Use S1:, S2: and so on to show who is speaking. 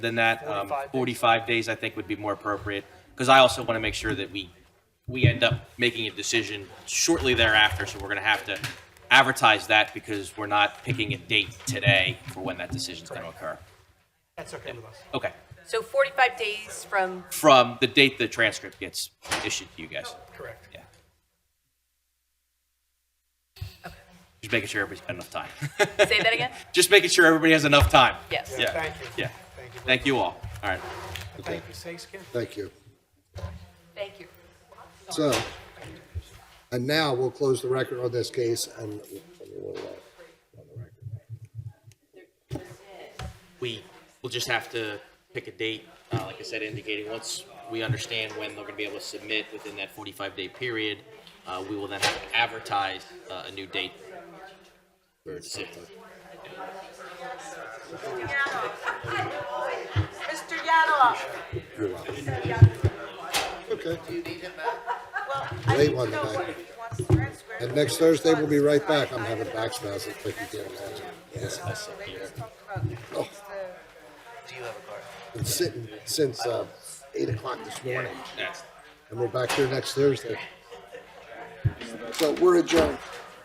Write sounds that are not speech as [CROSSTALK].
S1: than that. Um,
S2: 45 days.
S1: 45 days, I think, would be more appropriate, because I also want to make sure that we, we end up making a decision shortly thereafter, so we're going to have to advertise that because we're not picking a date today for when that decision's going to occur.
S2: That's okay with us.
S1: Okay,
S3: So 45 days from,
S1: from the date the transcript gets issued to you
S2: Oh.
S1: guys.
S2: Correct.
S1: Yeah. Just making sure everybody's got enough time. [LAUGHS]
S3: say that again?
S1: Just making sure everybody has enough time.
S3: Yes.
S1: Yeah.
S2: Thank you.
S1: Yeah.
S2: Thank you.
S1: Thank you all. All right.
S2: Thank you. Thanks again.
S4: Thank you.
S3: Thank you.
S4: So, and now we'll close the record on this case and we'll, uh, on the record.
S1: We will just have to pick a date, uh, like I said, indicating once we understand when they're gonna be able to submit within that forty-five day period, uh, we will then have to advertise, uh, a new date. For a decision.
S5: Mr. Yanalock,
S4: You're welcome. Okay. Late
S5: need
S4: one
S5: to know what
S4: tonight.
S5: he wants to transfer.
S4: And next Thursday, we'll be right back. I'm having back spasms, but you can't imagine. Yes.
S5: So they just talked about
S4: Oh.
S5: it's the-
S4: Been sitting since, uh, eight o'clock this morning
S1: That's-
S4: and we're back here next Thursday. So we're adjourned.